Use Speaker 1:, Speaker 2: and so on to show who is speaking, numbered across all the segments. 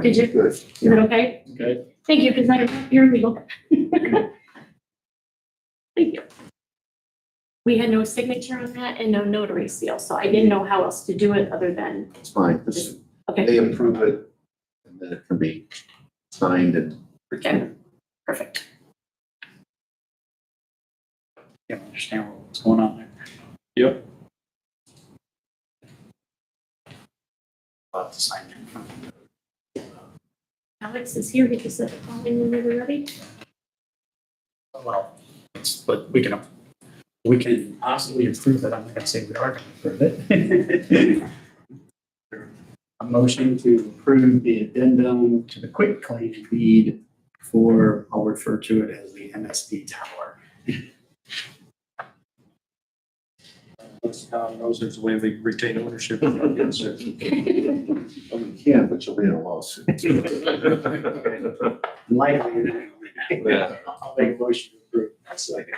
Speaker 1: Did you,
Speaker 2: Good.
Speaker 1: is that okay?
Speaker 3: Okay.
Speaker 1: Thank you, because I, you're legal. Thank you. We had no signature on that and no notary seal, so I didn't know how else to do it other than,
Speaker 2: It's fine. It's-
Speaker 1: okay,
Speaker 2: They approve it and then it can be signed and.
Speaker 1: okay, perfect.
Speaker 3: Yeah, I understand what's going on there. About the sign.
Speaker 1: Alex is here, he can set the phone whenever you're ready.
Speaker 3: Well, it's- but we can, we can possibly approve it. I'm not gonna say we are gonna approve it. A motion to approve the addendum to the quick claim deed for, I'll refer to it as the MSD tower.
Speaker 4: Unless Tom knows there's a way we retain ownership.
Speaker 2: Oh, you can, but you'll be in a lawsuit.
Speaker 3: Likely.
Speaker 2: Yeah.
Speaker 3: I'll make a motion to approve. That's like.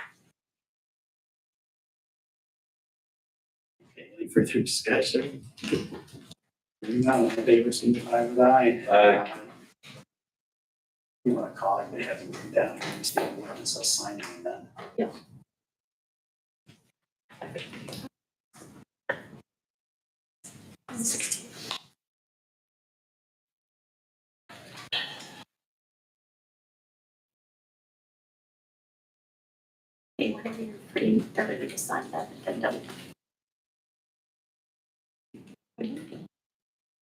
Speaker 3: Okay, any further discussion? Hearing none, all in favor, signify with aye.
Speaker 4: Aye.
Speaker 3: You wanna call it, they have to move down, and state where it's assigned and then.
Speaker 1: Yeah. Okay, whenever you're free, everybody just sign that and then done.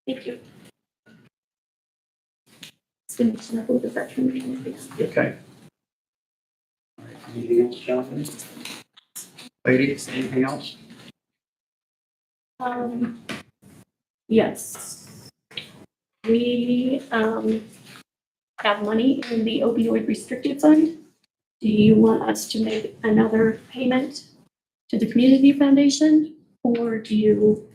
Speaker 1: Thank you. It's gonna be a little bit better.
Speaker 3: Okay. All right, Anything else, gentlemen? Ladies, anything else?
Speaker 1: Um, yes. We, um, have money in the opioid restricted fund. Do you want us to make another payment to the community foundation? Or do you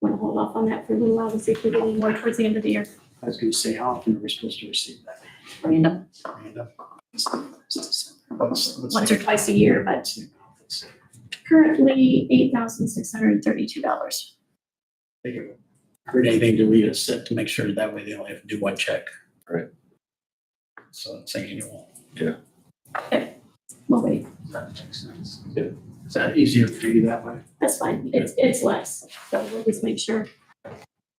Speaker 1: want to hold off on that for a little while to see if we get any more towards the end of the year?
Speaker 3: I was gonna say, how often are we supposed to receive that?
Speaker 1: Random,
Speaker 3: Random. Let's- let's-
Speaker 1: once or twice a year, but currently eight thousand six hundred and thirty-two dollars.
Speaker 5: heard anything to read us set to make sure that way they only have to do one check.
Speaker 2: Right.
Speaker 5: So it's annual.
Speaker 1: Well, wait,
Speaker 3: That makes sense.
Speaker 2: Yeah.
Speaker 3: Is that easier for you that way?
Speaker 1: that's fine. It's, it's less. So we'll just make sure.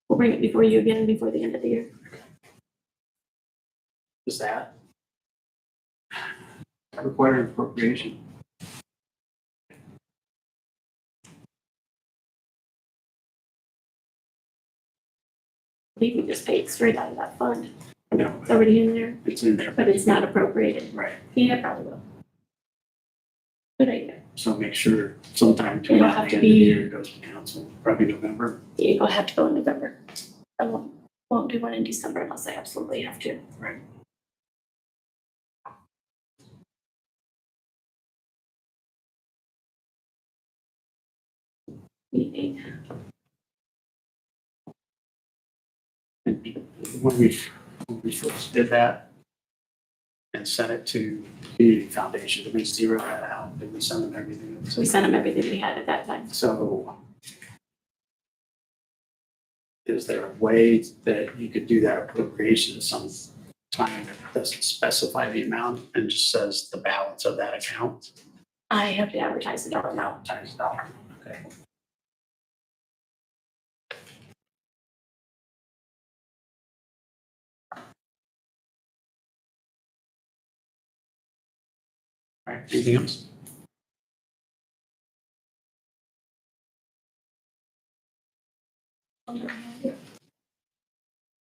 Speaker 1: We'll bring it before you again, before the end of the year.
Speaker 3: Is that? Require an appropriation.
Speaker 1: I think we just paid straight out of that fund.
Speaker 3: No,
Speaker 1: It's already in there,
Speaker 3: it's in there.
Speaker 1: but it's not appropriated.
Speaker 3: Right.
Speaker 1: Yeah, probably will. Good idea.
Speaker 3: So make sure sometime to
Speaker 1: It'll
Speaker 3: around the
Speaker 1: have
Speaker 3: end
Speaker 1: to
Speaker 3: of the
Speaker 1: be-
Speaker 3: year it goes to council, probably November.
Speaker 1: Yeah, You'll have to go in November. I won't, won't do one in December unless I absolutely have to.
Speaker 3: Right.
Speaker 1: Meeting.
Speaker 3: When we, when we first did that and sent it to Community Foundation, did we zero that out? Did we send them everything?
Speaker 1: We sent them everything we had at that time.
Speaker 3: So is there a way that you could do that appropriation some time that doesn't specify the amount and just says the balance of that account?
Speaker 1: I have to advertise the dollar amount.
Speaker 3: Times dollar. Okay. All right, anything else?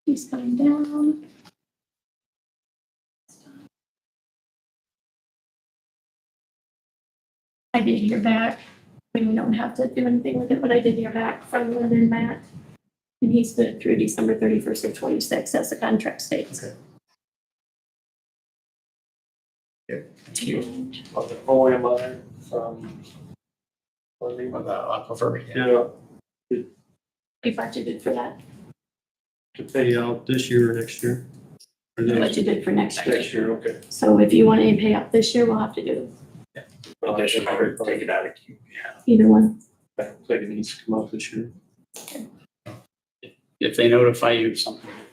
Speaker 1: He's coming down. I did hear back, we don't have to do anything with it, but I did hear back from Lynn and Matt. And he's good through December thirty-first of twenty-six, as the contract states.
Speaker 5: Thank you.
Speaker 4: Of the poem letter from. Wendy.
Speaker 5: Well, the aquifer, yeah.
Speaker 4: Yeah,
Speaker 1: We budgeted for that,
Speaker 4: to pay out this year or next year. Or
Speaker 1: We
Speaker 4: next,
Speaker 1: budgeted for next year.
Speaker 4: next year, okay.
Speaker 1: So if you want any pay up this year, we'll have to do
Speaker 4: Additional,
Speaker 3: Take it out of queue.
Speaker 1: either one.
Speaker 4: I think it needs to come out this year.
Speaker 5: If they notify you of something